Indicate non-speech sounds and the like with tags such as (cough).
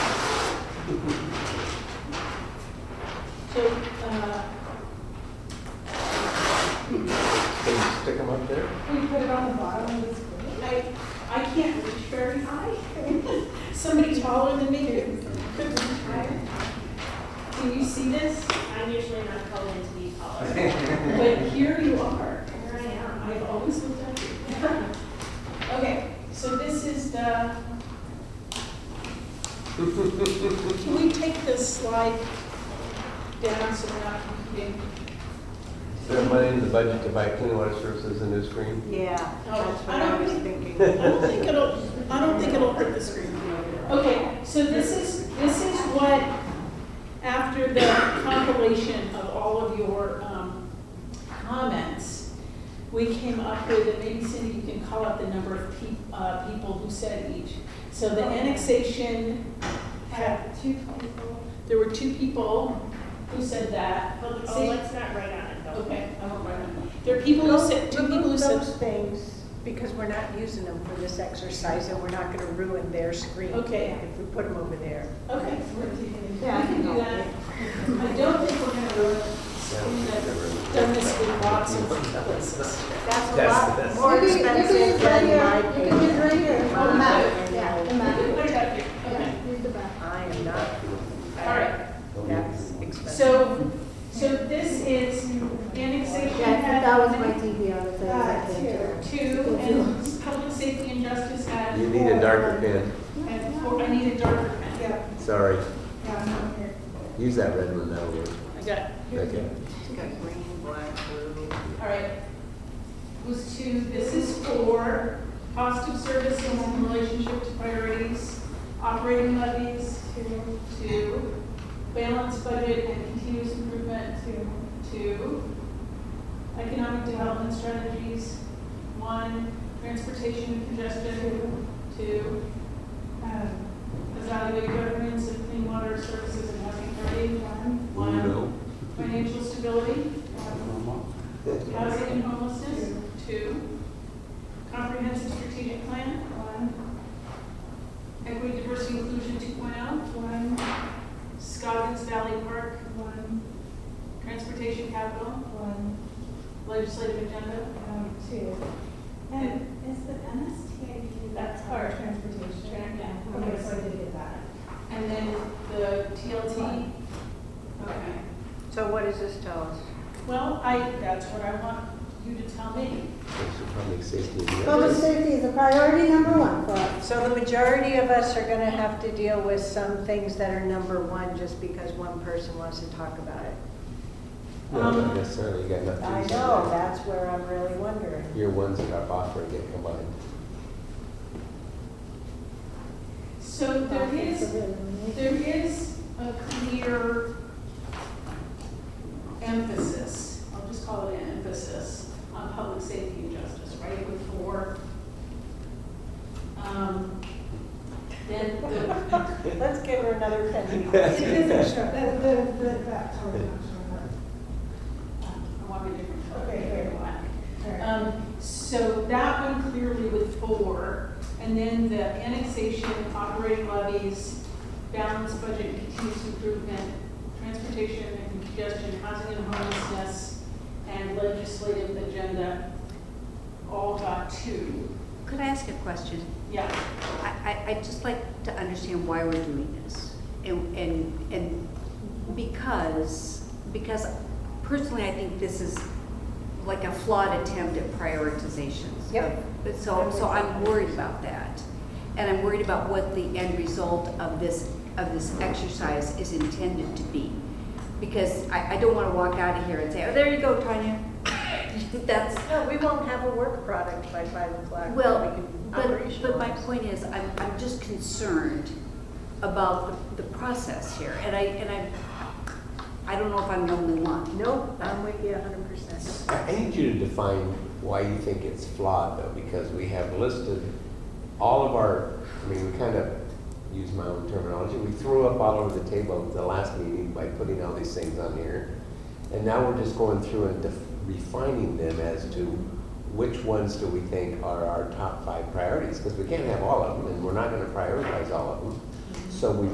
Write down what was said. uh, (laughs) Can you see this? I'm usually not called in to be called. (laughs) But here you are. Here I am. I've always looked at you. (laughs) Okay, so this is the. Can we take this slide down so we're not competing? Is there money in the budget to buy clean water services and new screen? Yeah, that's what I was thinking. I don't think it'll, I don't think it'll hurt the screen. Okay, so this is, this is what, after the compilation of all of your um, comments, we came up with, and maybe Cindy, you can call up the number of peop- uh, people who said each. So the annexation had, Two twenty-four. there were two people who said that. Well, See? oh, let's not write on it though. Okay, I won't write them. There are people who said, two people who Remove said. those things, because we're not using them for this exercise, and we're not gonna ruin their screen. Okay. If we put them over there. Okay, we're taking it. Yeah, I We can do can go. that. I don't think we're gonna ruin it. We've done this with lots of (laughs) places. That's a Yes, lot yes. more You can- you can expensive use right than my here. You can use right here. paper. Oh, the map. Mine, Yeah, the no. map. Put it up here. Okay, Yeah, use the map. I am not, all right. that's expensive. So, so this is annexation Yeah, had. that was my TV on the thing. uh, that came Two, and public safety and justice had. You need a darker pen, Had four, I need a darker pen. Yeah. sorry. Use that red one, that'll work. I got it. Okay. It's got green, black, blue. All right. Was two, this is four, cost of service in relationship to priorities, operating levies, two, two, balance budget and continuous improvement, two, two, economic development strategies, one, transportation and congestion, two, um, evaluate governance of clean water services and housing authority, one, one, No. financial stability, one, Housing and homelessness, two. Comprehensive strategic plan, one. Equity, diversity, inclusion, two oh. one. Scoggins Valley Park, one. Transportation capital, one. Legislative agenda, um, two. And is the MSTA? that's our transportation. Yeah. Okay, so I did get that. And then the TLT. Okay. So what does this tell us? Well, I, that's what I want you to tell me. Public safety. and through. the Public others. safety is a priority number one for us. So the majority of us are gonna have to deal with some things that are number one, just because one person wants to talk about it. No, Um, not necessarily, you got nothing. I know, that's where I'm really wondering. Your ones that are offered get combined. So there is It's There is a clear emphasis, I'll just call it an emphasis, on public safety and justice, right, with four. Um, Then the, Let's give her another penny. isn't sure, that, that, that, that, I want a different color. Okay, here. Black. Um, So that one clearly with four, and then the annexation, operating levies, balanced budget, and continuous improvement, transportation and congestion, housing and homelessness, and legislative agenda, all got two. Could I ask a question? Yeah, I, I, I'd just like to understand why we're doing this. And, and, and because, because personally, I think this is like a flawed attempt at prioritizations. Yep. But so, so I'm worried about that. And I'm worried about what the end result of this, of this exercise is intended to be. Because I, I don't want to walk out of here and say, oh, there you go, Tanya. (laughs) That's, No, we won't have a work product by five o'clock. that we well, can but, but my operationalize. point is, I'm, I'm just concerned about the, the process here, and I, and I, I don't know if I'm the only one. Nope, I'm with you hundred percent. I I need you to define why you think it's flawed, though, because we have listed all of our, I mean, we kind of use my own terminology, we threw up all over the table at the last meeting by putting all these things on here. And now we're just going through and def- refining them as to which ones do we think are our top five priorities? Because we can't have all of them, and we're not gonna prioritize all of them. So we